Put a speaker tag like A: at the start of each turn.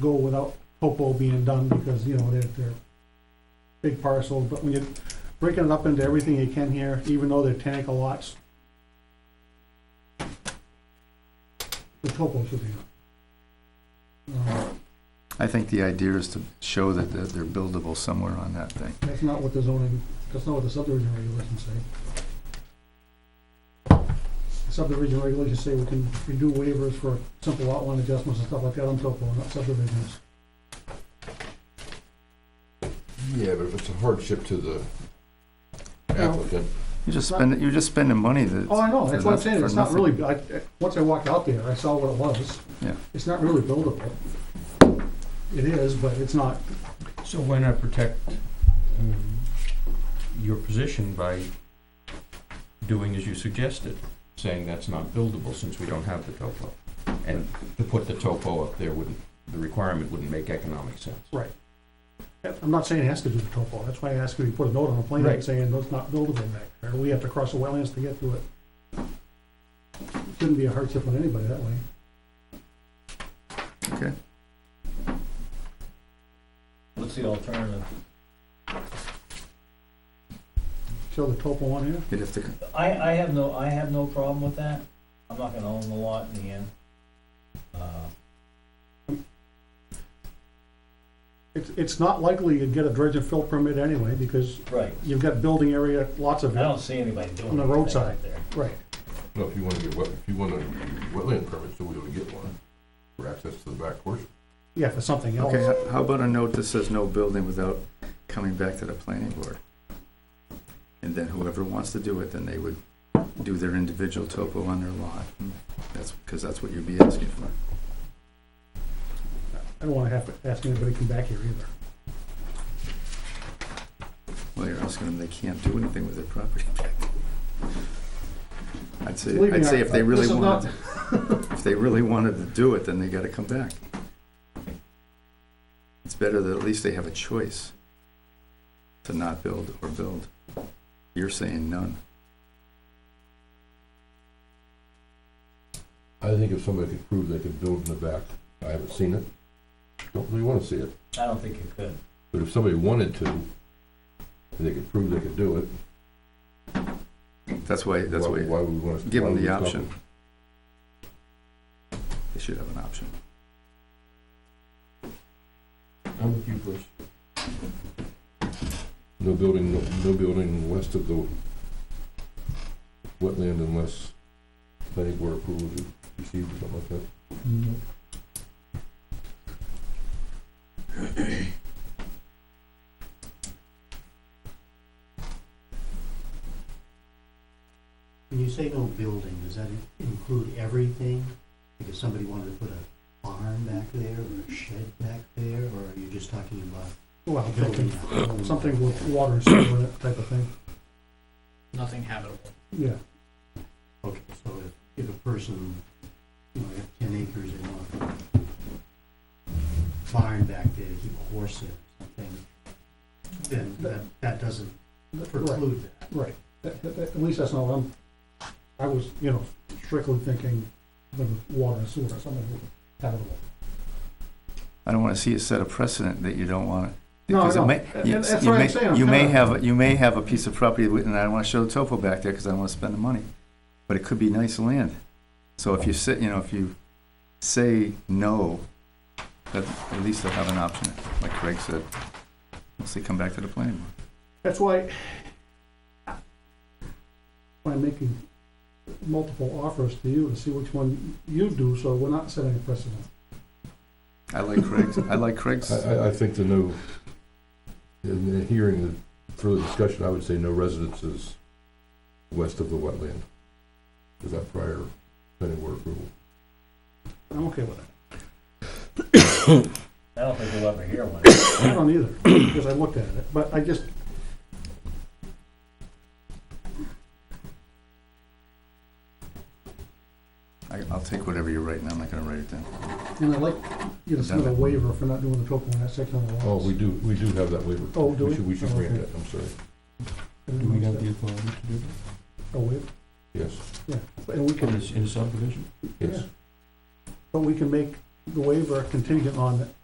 A: go without topo being done because, you know, they're, they're big parcels, but when you're breaking it up into everything you can here, even though they're ten acre lots, the topo should be. Uh,
B: I think the idea is to show that they're they're buildable somewhere on that thing.
A: That's not what the zoning, that's not what the subdivision regulations say. The Subdivision regulations say we can, we do waivers for simple lot line adjustments and stuff like that on topo, not subdivisions.
C: Yeah, but if it's a hardship to the applicant,
B: You're just spending, you're just spending money that.
A: Oh, I know, that's what I'm
B: for
A: saying, it's not
B: nothing.
A: really, I, I- once I walked out there, I saw what it was.
B: Yeah.
A: It's not really buildable. It is, but it's not,
D: So why not protect um, your position by doing as you suggested, saying that's not buildable since we don't have the topo? And to put the topo up there wouldn't, the requirement wouldn't make economic sense.
A: I'm not saying it has to do with topo, that's why I asked if you put a note on the plan
D: Right.
A: saying it's not buildable back there, we have to cross the wetlands to get to it. Shouldn't be a hardship on anybody that way.
B: Okay,
E: What's the alternative?
A: Show the topo on here.
B: you'd have to,
E: I, I have no, I have no problem with that. I'm not gonna own the lot in the end. Uh,
A: It's, it's not likely you'd get a dredge and fill permit anyway, because
E: Right,
A: you've got building area, lots
E: I
A: of it.
E: don't see anybody doing
A: On the
E: anything
A: roadside.
E: out there.
A: Right.
C: no, if you wanna get wet, if you wanna wetland permits, so we would get one for access to the back porch.
A: Yeah, for something else.
B: okay, h- how about a note that says no building without coming back to the planning board? And then whoever wants to do it, then they would do their individual topo on their lot. That's, because that's what you'd be asking for.
A: I don't wanna have to ask anybody to come back here either.
B: Well, you're asking them, they can't do anything with their property. I'd say,
A: Believe me,
B: I'd say if they
A: I-
B: really
A: this is
B: wanted, if they really wanted to do it, then they gotta come back. It's better that at least they have a choice to not build or build. You're saying none.
C: I think if somebody could prove they could build in the back, I haven't seen it, don't really wanna see it,
E: I don't think you could.
C: but if somebody wanted to, and they could prove they could do it,
B: That's why, that's
C: why,
B: why,
C: why would we wanna?
B: give
C: why
B: them
C: would
B: the
C: we stop
B: option.
C: them?
B: They should have an option.
D: I'm with you, Bruce.
C: No building, no, no building west of the wetland unless planning board approval is received or something like that.
F: When you say no building, does that include everything? Like if somebody wanted to put a barn back there or a shed back there, or are you just talking about
A: Well, I'm
F: building
A: thinking
F: a home?
A: something with water and sewer in it type of thing.
E: Nothing habitable.
A: Yeah,
F: Okay, so if, if a person, you know, they have ten acres, they want to put a barn back there to keep a horse in or something, then that, that doesn't
A: right,
F: preclude that.
A: right. That- that- that- At least that's not what I'm, I was, you know, strictly thinking the water and sewer, something habitable.
B: I don't wanna see it set a precedent that you don't want it.
A: No, I
B: because it
A: know.
B: may-
A: And- and
B: yes,
A: that's
B: you
A: what I'm
B: may-
A: saying, I'm
B: You may
A: kinda-
B: have, you may have a piece of property, with- and I don't wanna show the topo back there, cause I don't wanna spend the money, but it could be nice land. So if you say, you know, if you say no, that, at least they'll have an option, like Craig said. Once they come back to the planning board.
A: That's why by making multiple offers to you to see which one you do, so we're not setting a precedent.
B: I like Craig's, I like Craig's,
C: I, I, I think the no, in the hearing the further discussion, I would say no residences west of the wetland without prior planning board approval.
A: I'm okay with that.
E: I don't think we'll ever hear one.
A: I don't either, because I looked at it, but I just,
B: I- I'll take whatever you're writing, I'm not gonna write it down.
A: and I like, you know, some of the waiver for not doing the topo in that section of the lots.
C: Oh, we do, we do have that waiver.
A: Oh, do we?
C: should- We should
A: Oh,
C: grant
A: okay.
C: that, I'm sorry,
D: Do we have the authority to do
A: A waiver,
C: yes,
A: and we
D: that? In
A: can,
D: a- In a subdivision?
C: yes.
A: but we can make the waiver contingent on